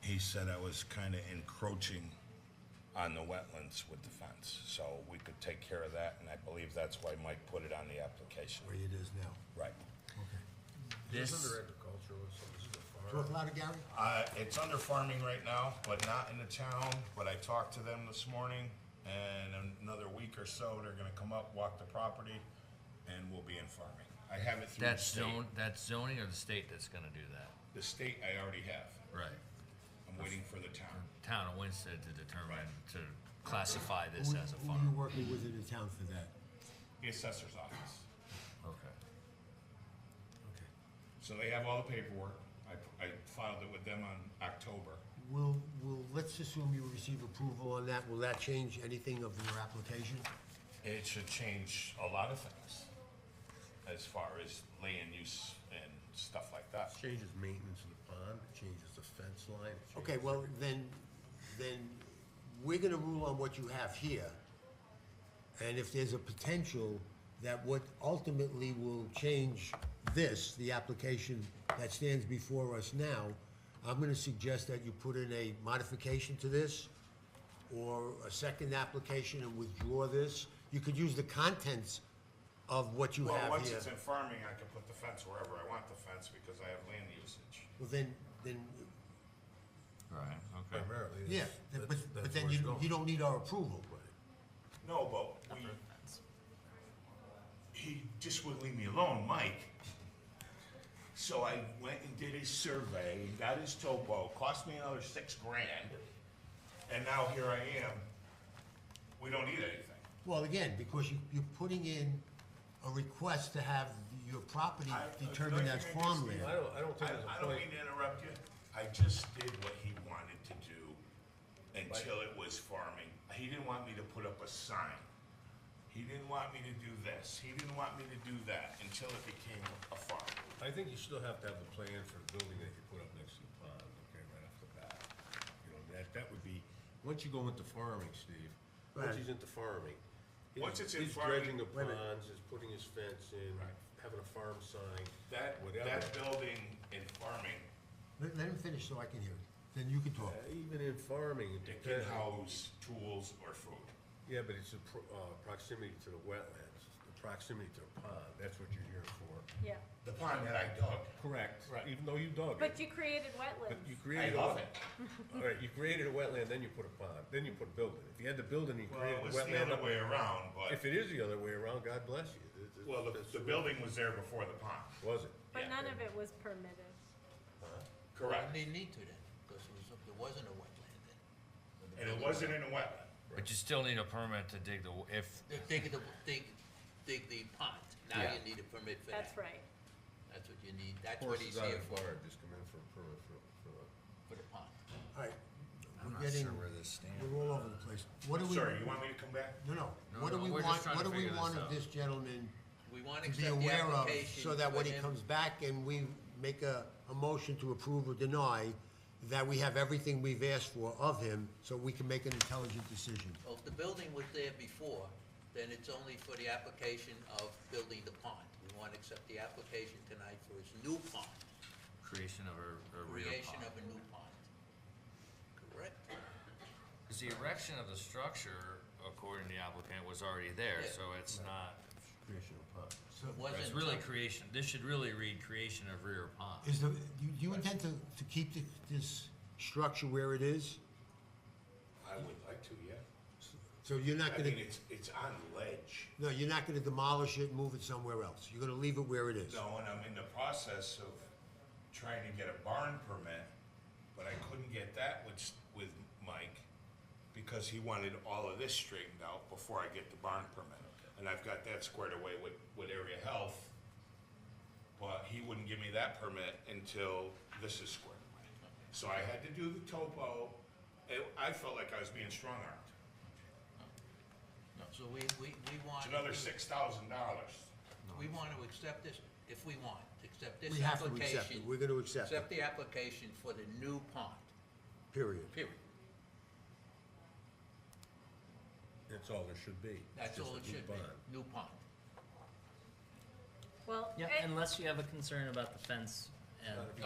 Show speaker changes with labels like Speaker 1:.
Speaker 1: he said I was kind of encroaching on the wetlands with the fence, so we could take care of that, and I believe that's why Mike put it on the application.
Speaker 2: where it is now.
Speaker 1: Right.
Speaker 2: Okay.
Speaker 3: This,
Speaker 4: agricultural, so this is a
Speaker 2: Do it louder, Gary?
Speaker 1: Uh, it's under farming right now, but not in the town, but I talked to them this morning, and in another week or so, they're gonna come up, walk the property, and we'll be in farming. I have it through the
Speaker 3: that's
Speaker 1: state.
Speaker 3: zone, that's zoning or the state that's gonna do that?
Speaker 1: The state I already have.
Speaker 3: Right.
Speaker 1: I'm waiting for the town.
Speaker 3: Town of Winston to determine, to classify this
Speaker 2: Who-
Speaker 3: as a
Speaker 2: Who you
Speaker 3: farm.
Speaker 2: working with in the town for that?
Speaker 1: The assessor's office.
Speaker 3: Okay.
Speaker 2: Okay.
Speaker 1: So they have all the paperwork. I, I filed it with them on October.
Speaker 2: Will, will, let's assume you receive approval on that, will that change anything of your application?
Speaker 1: It should change a lot of things as far as land use and stuff like that.
Speaker 4: Changes maintenance of the pond, it changes the fence line. it
Speaker 2: Okay,
Speaker 4: changes-
Speaker 2: well, then, then we're gonna rule on what you have here. And if there's a potential that what ultimately will change this, the application that stands before us now, I'm gonna suggest that you put in a modification to this or a second application and withdraw this. You could use the contents of what you
Speaker 1: Well,
Speaker 2: have uh,
Speaker 1: once
Speaker 2: here.
Speaker 1: it's in farming, I can put the fence wherever I want the fence because I have land usage.
Speaker 2: Well, then, then,
Speaker 3: Right, okay.
Speaker 4: Primarily. it's-
Speaker 2: yeah, but,
Speaker 4: that's- that's
Speaker 2: but then
Speaker 4: where it's
Speaker 2: you,
Speaker 4: going.
Speaker 2: you don't need our approval.
Speaker 1: No, but we, he just wouldn't leave me alone, Mike. So I went and did his survey, got his topo, cost me another six grand, and now here I am. We don't need anything.
Speaker 2: Well, again, because you, you're putting in a request to have your property
Speaker 1: I-
Speaker 2: determined
Speaker 1: no,
Speaker 2: as
Speaker 1: you're gonna
Speaker 2: farmland.
Speaker 1: just-
Speaker 4: I don't, I don't
Speaker 1: I,
Speaker 4: think there's
Speaker 1: I
Speaker 4: a
Speaker 1: don't
Speaker 4: point,
Speaker 1: mean to interrupt you. I just did what he wanted to do until it was farming. He didn't want me to put up a sign. He didn't want me to do this. He didn't want me to do that until it became a farm.
Speaker 4: I think you still have to have the plan for the building that you put up next to the pond, okay, right off the bat. You know, that, that would be, once you go into farming, Steve,
Speaker 2: Right.
Speaker 4: once he's into farming. he's-
Speaker 1: Once it's in
Speaker 4: He's dredging
Speaker 1: farming-
Speaker 4: the
Speaker 2: Wait a minute.
Speaker 4: ponds, he's putting his fence in,
Speaker 1: Right.
Speaker 4: having a farm sign,
Speaker 1: That,
Speaker 4: whatever.
Speaker 1: that building and farming,
Speaker 2: Let, let him finish so I can hear it, then you can talk.
Speaker 4: Uh, Even in farming, it
Speaker 1: it can
Speaker 4: depends.
Speaker 1: house tools or food.
Speaker 4: Yeah, but it's the pro- uh, proximity to the wetlands, the proximity to the pond, that's what you're here for.
Speaker 5: Yeah,
Speaker 1: The pond that I dug,
Speaker 4: Correct. Even though you dug
Speaker 5: but
Speaker 4: it.
Speaker 5: you created
Speaker 4: But
Speaker 5: wetlands.
Speaker 4: you
Speaker 1: I
Speaker 4: created. a
Speaker 1: love
Speaker 4: wet-
Speaker 1: it.
Speaker 4: All right, you created a wetland, then you put a pond, then you put a building. If you had the building, you
Speaker 1: Well, it
Speaker 4: created a
Speaker 1: was the other way
Speaker 4: wetland.
Speaker 1: around, but,
Speaker 4: If it is the other way around, God bless you. It- it-
Speaker 1: well, the,
Speaker 4: that's
Speaker 1: the
Speaker 4: way-
Speaker 1: building was there before the pond.
Speaker 4: Was it?
Speaker 5: But
Speaker 1: Yeah.
Speaker 5: none of it was permitted.
Speaker 1: Correct.
Speaker 6: Didn't need to then, because it was, there wasn't a wetland then.
Speaker 1: And it wasn't in a wetland.
Speaker 3: But you still need a permit to dig the, w- if,
Speaker 6: They dig the, dig, dig the pond, now
Speaker 3: Yeah.
Speaker 6: you need a permit for that.
Speaker 5: That's right.
Speaker 6: That's what you need, that's what he's
Speaker 4: Horses out
Speaker 6: here
Speaker 4: in
Speaker 6: for,
Speaker 4: Florida just come in for a permit for, for,
Speaker 6: for the pond.
Speaker 2: All right,
Speaker 7: I'm
Speaker 2: we're
Speaker 7: not sure
Speaker 2: getting,
Speaker 7: where this stands.
Speaker 2: we're all over the place. What do we?
Speaker 1: Sorry, you want me to come back?
Speaker 2: No, no,
Speaker 3: No,
Speaker 2: what do
Speaker 3: no,
Speaker 2: we
Speaker 3: we're just
Speaker 2: want,
Speaker 3: trying
Speaker 2: what
Speaker 3: to
Speaker 2: do we
Speaker 3: figure this
Speaker 2: want
Speaker 3: out.
Speaker 2: of this gentleman
Speaker 6: We want to
Speaker 2: to be
Speaker 6: accept the
Speaker 2: aware of,
Speaker 6: application.
Speaker 2: so that when
Speaker 6: for
Speaker 2: he
Speaker 6: him.
Speaker 2: comes back and we make a, a motion to approve or deny, that we have everything we've asked for of him, so we can make an intelligent decision.
Speaker 6: Well, if the building was there before, then it's only for the application of building the pond. We want to accept the application tonight for his new pond,
Speaker 3: creation of a, a rear
Speaker 6: creation
Speaker 3: pond.
Speaker 6: of a new pond. Correct?
Speaker 3: Cause the erection of the structure, according to the applicant, was already there,
Speaker 6: Yeah.
Speaker 3: so it's not,
Speaker 4: creation of pond.
Speaker 2: So,
Speaker 6: It wasn't.
Speaker 3: it's really creation, this should really read creation of rear pond.
Speaker 2: Is the, you, you intend to, to keep thi- this structure where it is?
Speaker 1: I would like to, yeah.
Speaker 2: So you're not
Speaker 1: I
Speaker 2: gonna,
Speaker 1: mean, it's, it's on ledge.
Speaker 2: no, you're not gonna demolish it and move it somewhere else? You're gonna leave it where it is?
Speaker 1: No, and I'm in the process of trying to get a barn permit, but I couldn't get that with, s- with Mike because he wanted all of this straightened out before I get the barn permit. And I've got that squared away with, with area health, but he wouldn't give me that permit until this is squared away. So I had to do the topo. It- I felt like I was being strong-armed.
Speaker 6: So we, we, we want.
Speaker 1: It's another six thousand dollars.
Speaker 6: We want to accept this, if we want, accept this
Speaker 2: We have to accept it,
Speaker 6: application.
Speaker 2: we're gonna accept
Speaker 6: Accept
Speaker 2: it,
Speaker 6: the application for the new pond,
Speaker 2: period.
Speaker 6: period.
Speaker 4: That's all there should be.
Speaker 6: That's
Speaker 4: Just
Speaker 6: all
Speaker 4: a
Speaker 6: it
Speaker 4: new
Speaker 6: should be,
Speaker 4: pond.
Speaker 6: new pond.
Speaker 5: Well,
Speaker 8: Yeah,
Speaker 5: eh,
Speaker 8: unless you have a concern about the fence and